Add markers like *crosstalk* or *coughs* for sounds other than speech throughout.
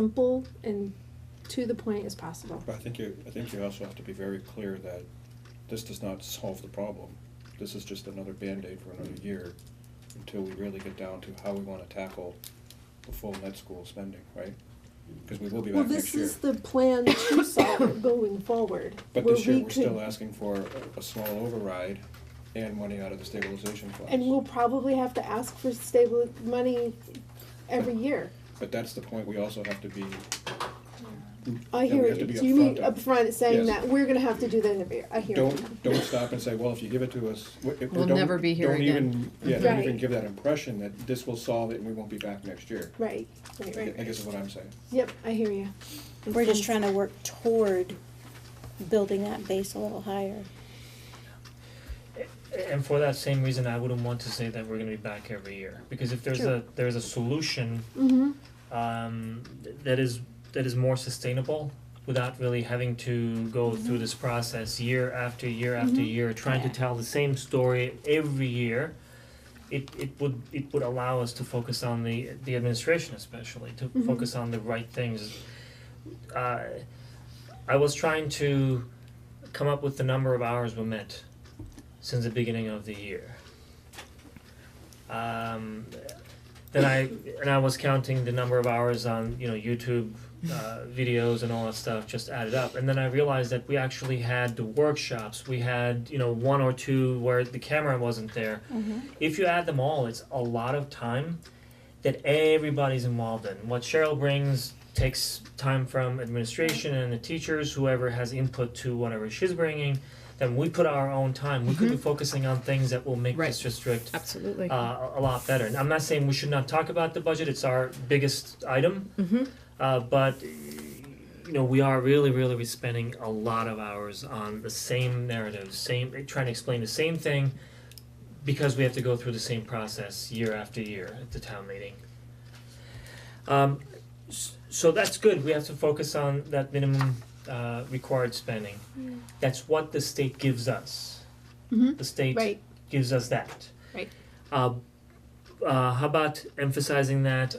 simple and to the point as possible. But I think you, I think you also have to be very clear that this does not solve the problem. This is just another Band-Aid for another year until we really get down to how we wanna tackle the full net school spending, right? Cause we will be Well, back next this year. is the plan *coughs* to solve it going forward. But where this year, we we're could- still asking for a- a small override and money out of the stabilization And funds. we'll probably have to ask for stable money every year. But that's the point, we also have to be, I Then we hear have to you. be So you mean upfront on- upfront saying Yes. that we're gonna have to do that every year. I hear you. don't, don't stop and say, well, if you give it to us, we, we We'll don't- never be here don't again. even- Yeah, don't even Right. give that impression that this will solve it and we won't be back next year. Right, right, I right, right. guess is what I'm saying. Yep, I hear you. We're just trying to work toward building that base a little higher. And for that same reason, I wouldn't want to say that we're gonna be back every year, because if there's True. a, there's a solution Mm-hmm, um th- that is that is more sustainable without really having to go Mm-hmm. through this process year after year after year, trying to Yeah. tell the same story every year. It it would it would allow us to focus on the the administration especially, to Mhm. focus on the right things. Uh I was trying to come up with the number of hours we met since the beginning of the year. Um, then I and I was counting the number of hours on you know YouTube uh, videos and all that stuff just added up, and then I realized that we actually had the workshops. We had you know one or two where the camera wasn't there. If you add them all, it's a lot of time that everybody's involved in. What Cheryl brings takes time from administration and the teachers, whoever has input to whatever she's bringing. Then we put our own time. We could be focusing on things that will make this Right. district Absolutely. uh, a lot better. And I'm not saying we should not talk about the budget; it's our biggest item. Mhm. Uh, but you know, we are really, really be spending a lot of hours on the same narrative, same trying to explain the same thing, because we have to go through the same process year after year at the town meeting. Um, s- so that's good. We have to focus on that minimum uh, required spending. That's what the state gives us. Mhm. The state right, gives us that. Right. Uh, uh, how about emphasizing that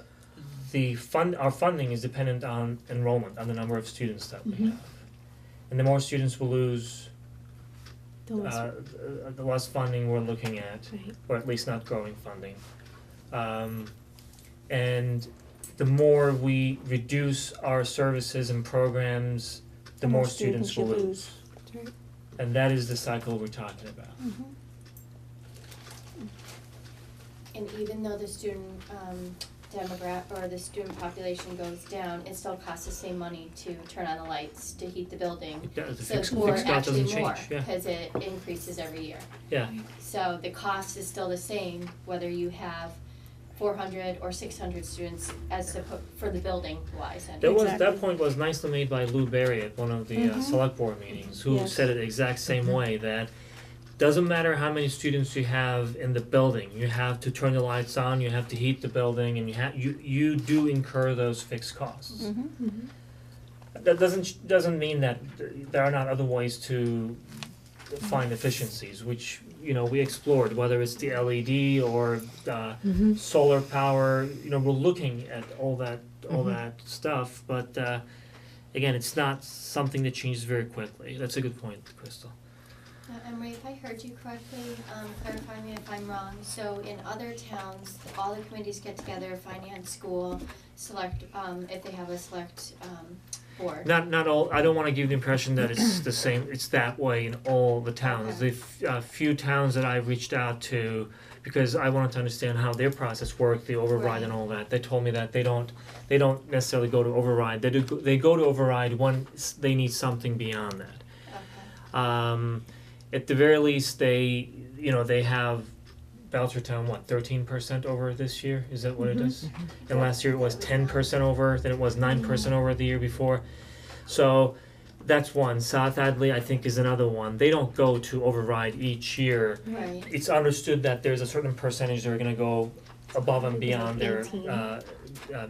the fund, our funding is dependent on enrollment, on the number of students that we Mhm. have. And the more students we lose, the uh, last one. uh, the less funding we're looking at, Right. or at least not growing funding. Um, and the more we reduce our services and programs, the more students we you lose. lose. That's right. And that is the cycle we're talking about. And even though the student um demograph or the student population goes down, it still costs the same money to turn on the lights, to heat the building. It does, the So, fixed, or fixed cost actually doesn't change, yeah. more, cause it increases every year. Yeah. So the cost is still the same, whether you have four hundred or six hundred students as to, put- for the building wise anyway. That was, that Exactly. point was nicely made by Lou Berry at one of the uh, Mhm. select board meetings, who Yes. Mm-hmm. said it the exact same way, that doesn't matter how many students you have in the building, you have to turn the lights on, you have to heat the building, and you ha- you, you do incur those fixed costs. Mm-hmm. That doesn't, doesn't mean that th- there are not other ways to find efficiencies, which, you know, we explored, whether it's the LED or, uh, solar power, you know, we're looking at all that, all that stuff, but, uh, again, it's not something that changes very quickly. That's a good point, Crystal. Uh, Emery, if I heard you correctly, um, clarify me if I'm wrong, so in other towns, all the committees get together, finance, school, select, um, if they have a select, um, board. Not, not all, I don't wanna give the impression that it's the same, it's that way in all the towns. The f- uh, few towns that I reached out to, because I wanted to understand how their process worked, the override and all that, they told me that they don't, they don't necessarily go to override, they do, go- they go to override when s- they need something beyond that. Okay. Um, at the very least, they, you know, they have Belchertown, what, thirteen percent over this year? Is that what it is? And last year it was ten percent over, then it was nine percent over the year before. So that's one. South Hadley, I think, is another one. They don't go to override each year. Right, Mm-hmm. It's understood that there's a certain percentage that are gonna go above and beyond their uh, uh,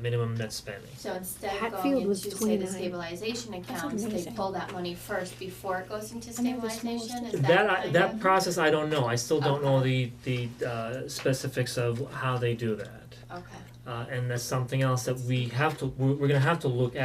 minimum net spending. so instead of Hatfield going into, was say, the 29. stabilization accounts, they amazing. pull that money first before it goes into I know the smallest stabilization, is that That I, kind that of- process, I don't know. I still don't know the Okay. the uh specifics of how they do that. Okay, Uh, and that's something else that we have to, we're, we're gonna have to look at.